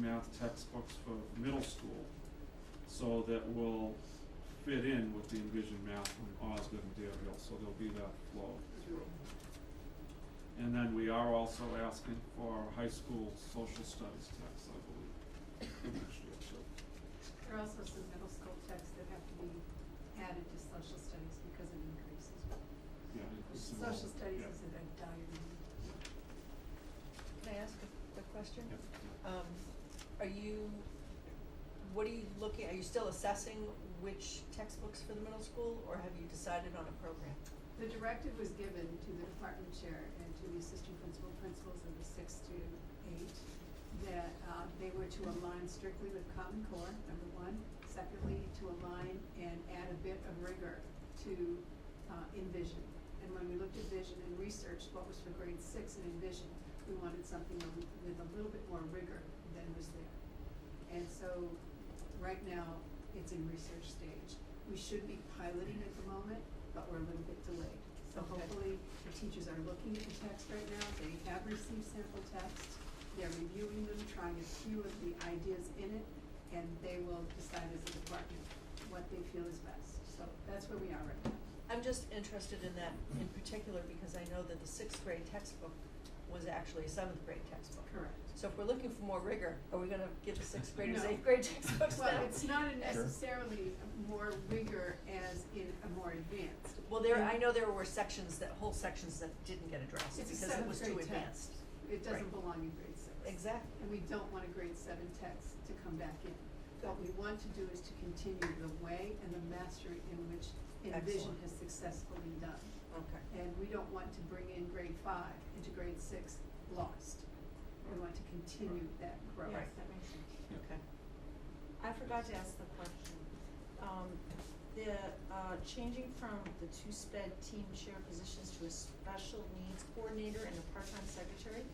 math textbooks for middle school, so that will fit in with the envisioned math from Osgood and Deerfield, so there'll be that flow through. And then we are also asking for high school social studies text, I believe, for next year too. There are also some middle school texts that have to be added to social studies because it increases. Yeah, increasing all- Social studies yeah. is a dire need. Can I ask a, a question? Yeah. Um, are you, what are you looking, are you still assessing which textbooks for the middle school, or have you decided on a program? The directive was given to the department chair and to the assistant principal, principals of the six to eight, that, uh, they were to align strictly with Common Core, number one. Secondly, to align and add a bit of rigor to, uh, envision. And when we looked at vision and researched what was for grade six and envision, we wanted something a li- with a little bit more rigor than was there. And so, right now, it's in research stage. We should be piloting at the moment, but we're a little bit delayed. So Okay. hopefully, the teachers are looking at the text right now, they have received sample texts, they're reviewing them, trying a few of the ideas in it, and they will decide as a department what they feel is best. So that's where we are right now. I'm just interested in that in particular because I know that the sixth grade textbook was actually a seventh grade textbook. Correct. So if we're looking for more rigor, are we gonna give the sixth graders No. eighth grade textbooks now? Well, it's not a Sure. necessarily more rigor as in a more advanced. Well, there, I And- know there were sections that, whole sections that didn't get addressed It's a because it seventh was too grade advanced. text. It doesn't Right. belong in grade six. Exactly. And we don't want a grade seven text to come back in. What we want to do is to continue the way and the mastery in which Envision Excellent. has successfully done. Okay. And we don't want to bring in grade five into grade six lost. We want to continue that growth. Yes, that makes sense. Okay. I forgot to ask the question. Um, the, uh, changing from the two sped team chair positions to a special needs coordinator and a part-time secretary?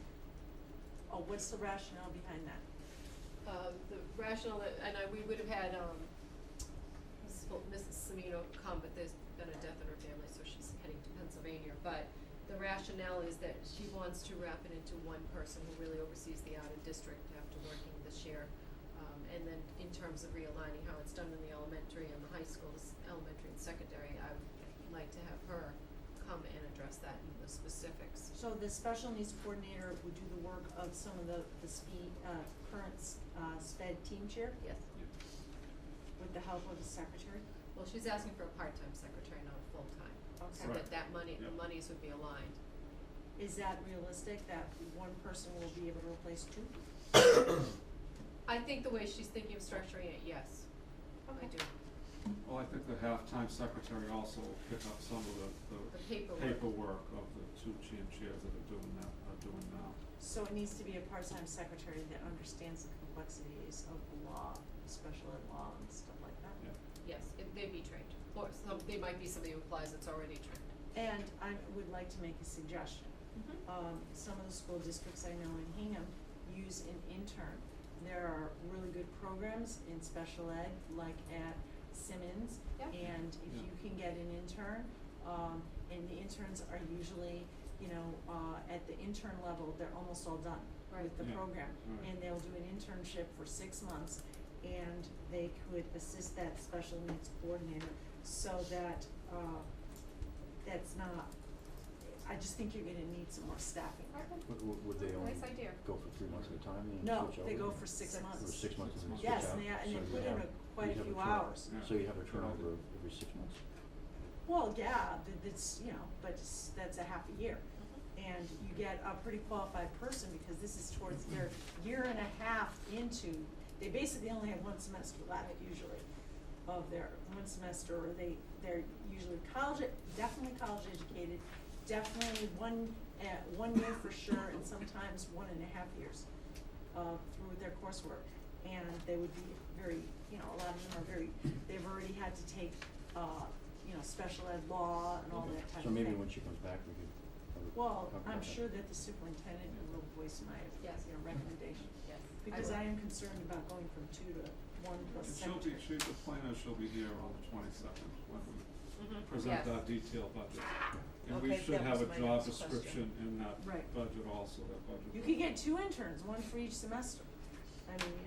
Oh, what's the rationale behind that? um, the rationale that, and I, we would have had, um, Mrs. Fol- Mrs. Semino come, but there's been a death in her family, so she's heading to Pennsylvania. But the rationale is that she wants to wrap it into one person who really oversees the out-of-district after working this year. Um, and then in terms of realigning how it's done in the elementary and the high schools, elementary and secondary, I would like to have her come and address that in the specifics. So the special needs coordinator would do the work of some of the, the spe- uh, current, s- uh, sped team chair Yes. with the help of the secretary? Well, she's asking for a part-time secretary, not a full-time. So Okay. that that money, the Yep. monies would be aligned. Is that realistic, that one person will be able to replace two? I think the way she's thinking of structuring it, yes, Oh, I Okay. do. Well, I think the halftime secretary also will pick up some of the, The the paperwork. paperwork of the two chin chairs that are doing that, are doing now. So it needs to be a part-time secretary that understands the complexities of the law, special ed law and stuff like that. Yeah. Yes, if they'd be trained, or some, they might be somebody who applies that's already trained. And I would like to make a suggestion. Um, some of the school districts I know in Hingham use an intern. There are really good programs in special ed, like at Simmons. Yeah. And if Yeah. you can get an intern, um, and the interns are usually, you know, uh, at the intern level, they're almost all done with Right. the Yeah. program. Right. And they'll do an internship for six months, and they could assist that special needs coordinator so that, uh, that's not, I just think you're gonna need some more staffing. Would, would- would they only Nice idea. go for three months at a time and then No, switch out? they go for six Six. Or months. six months and then Six switch out? Yes, and they, and So they you put in have- a, quite a you'd have few turnover- hours. Yeah. So you have a turnover of every six months? Well, yeah, th- that's, you know, but it's- that's a half a year. And you get a pretty qualified person because this is towards their year and a half into, they basically only have one semester left usually of their, one semester, or they, they're usually college, definitely college educated, definitely one, uh, one year for sure, and sometimes one and a half years uh, through their coursework. And they would be very, you know, a lot of them are very, they've already had to take, uh, you know, special ed law and all Okay. that type of So thing. maybe when she comes back, we could. have a- Well, talk I'm about sure that the superintendent will voice my, Yes. you know, recommendation. Yes. Because will. I am concerned about going from two to one plus And she'll secretary. be, she, the planner, she'll be here on the twenty-second when we Mhm. present Yes. our detailed budget. And Okay, we should that have was a my job next question. description in that Right. budget also, that budget. You could get two interns, one for each semester. I mean,